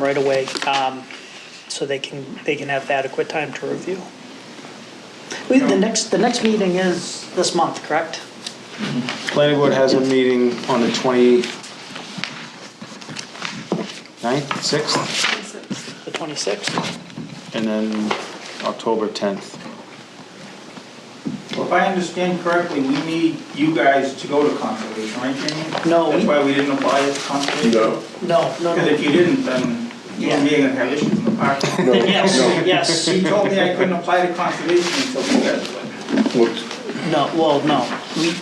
right away, um, so they can, they can have adequate time to review. We- The next, the next meeting is this month, correct? Planning board has a meeting on the 29th, 6th, The 26th? and then October 10th. Well, if I understand correctly, we need you guys to go to conservation, right, Jamie? No, That's we- why we didn't apply it to conservation? No, No, no, Because no. if you didn't, then you and me are gonna have issues in the park. no, Yes, no. yes, She told me I couldn't apply to conservation until you guys went. Look, no, well, no, we,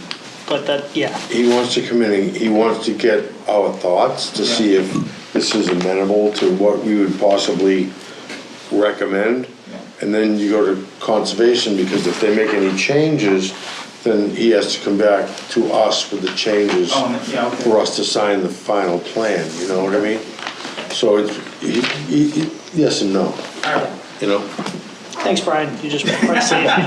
but that, yeah, He wants to come in, and he wants to get our thoughts to see if this is amenable to what we would possibly recommend. And then you go to conservation, because if they make any changes, then he has to come back to us with the changes Oh, and- yeah, okay. for us to sign the final plan, you know what I mean? So it's, he- he- he- yes and no, All right. you know? thanks, Brian, you just probably saved me.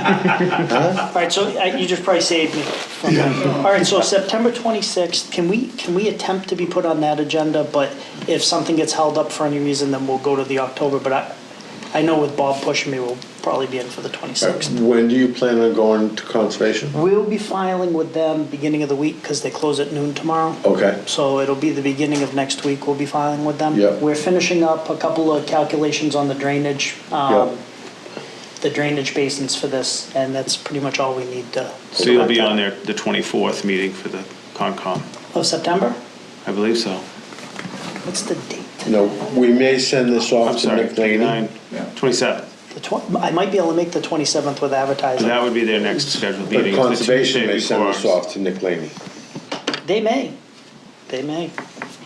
All right, so I- you just probably saved me. from that. All right, so September 26th, can we, can we attempt to be put on that agenda, but if something gets held up for any reason, then we'll go to the October, but I, I know with Bob pushing me, we'll probably be in for the 26th. When do you plan on going to conservation? We'll be filing with them beginning of the week, because they close at noon tomorrow. Okay. So it'll be the beginning of next week we'll be filing with them. Yeah. We're finishing up a couple of calculations on the drainage, Yeah. um, the drainage basins for this, and that's pretty much all we need to. So you'll be on there the 24th meeting for the Concom, Of September? I believe so. What's the date? No, we may send this I'm off to sorry, Nick Laney. 29, Yeah. 27th. The tw- I might be able to make the 27th with So advertising. that would be their next scheduled But meeting. is the conservation Tuesday may send before this ours. off to Nick Laney. They may. They may.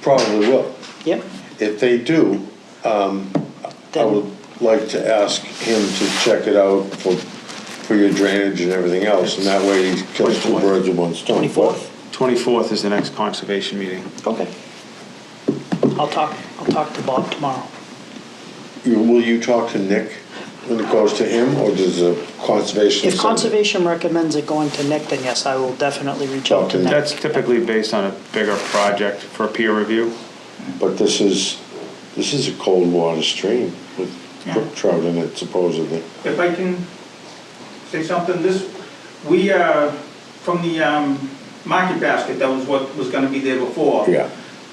Probably will. Yep. If they do, I would Then, like to ask him to check it out for, for your drainage and everything else, and that way he kills two 24th. birds with one stone. 24th? 24th is the next conservation meeting. Okay. I'll talk, I'll talk to Bob tomorrow. But you- Will you talk to Nick when it goes to him, or does the conservation? If send it? conservation recommends it going to Nick, then yes, I will definitely reach out to Okay. Nick. That's typically based on a bigger project for peer review. But this is, this is a cold water stream with brook trout in it supposedly. If I can say something, this, we, uh, from the um, market basket, that was what was gonna be there before. Yeah,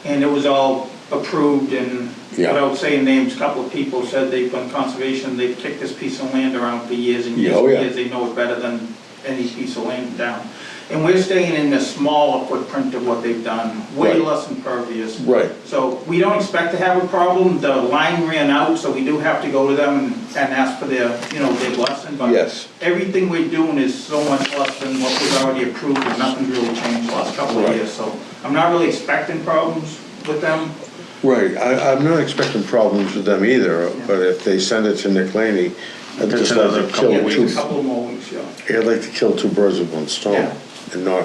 And it was all approved and, Yeah. without saying names, a couple of people said they've done conservation, they've kicked this piece of land around for years and years Yeah, oh, and yeah. years. They know it better than any piece of land down. And we're staying in the smaller footprint of what they've done, way Right. less impervious. right. So we don't expect to have a problem. The line ran out, so we do have to go to them and and ask for their, you know, their blessing. But Yes. Everything we're doing is so much less than what was already approved, and nothing really changed the last couple of Right. years. So I'm not really expecting problems with them. Right, I, I'm not expecting problems with them either, but if they send it to Nick Laney, I'd That's just like another to couple kill of two, A weeks. couple more weeks, yeah. I'd like to kill two birds with one stone. Yeah. And not,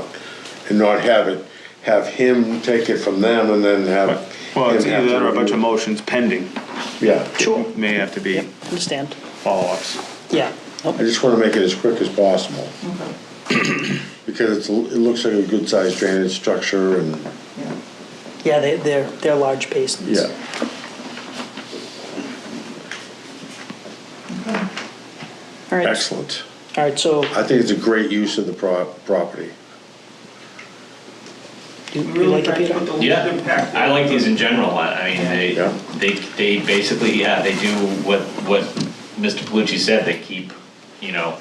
and not have it, have him take it from them and then have. Well, it's him have either that to or a bunch of review motions pending, it. Yeah, Sure. may have to be Yep, understand. follow-ups. Yeah. I just wanna make it as quick as possible. Because it's, it looks like a good sized drainage structure and, Yeah. Yeah, they, they're, they're large basins. yeah. All right. Excellent. Uh, All right, so I think it's a great use of the pro- property. you We you really like it, tried to put Peter? the least Yeah, impact. I like these in general, I, I mean, Yeah. they, they, they basically, yeah, they do what, what Mr. Palucci said, they keep, you know,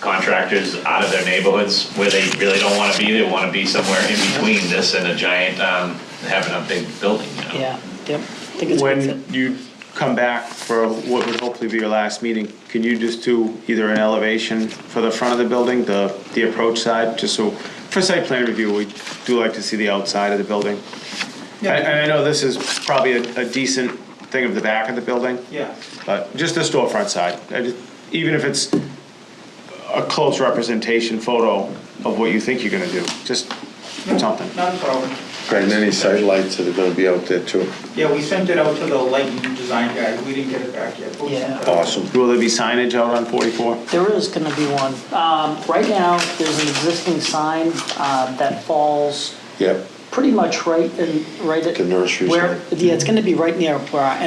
contractors out of their neighborhoods where they really don't wanna be, they wanna be somewhere in between this and a giant, um, having a big building, you know? Yeah, yep. I think it's a good fit. When you come back for what would hopefully be your last meeting, can you just do either an elevation for the front of the building, the, the approach side, just so, for site plan review, we do like to see the outside of the building. And Yeah. and I know this is probably a a decent thing of the back of the building, Yeah, but just the storefront side, I just- even if it's a close representation photo of what you think you're gonna do, just something. not a problem. And any site lights that are gonna be out there too. Yeah, we sent it out to the lighting design guy. We didn't get it back yet. but we sent it out. Awesome. Will there be signage out on 44? There is going to be one. Um, Right now, there's an existing sign uh, that falls Yep. pretty much right in, right at. The nursery where- Yeah, it's going to be right near where our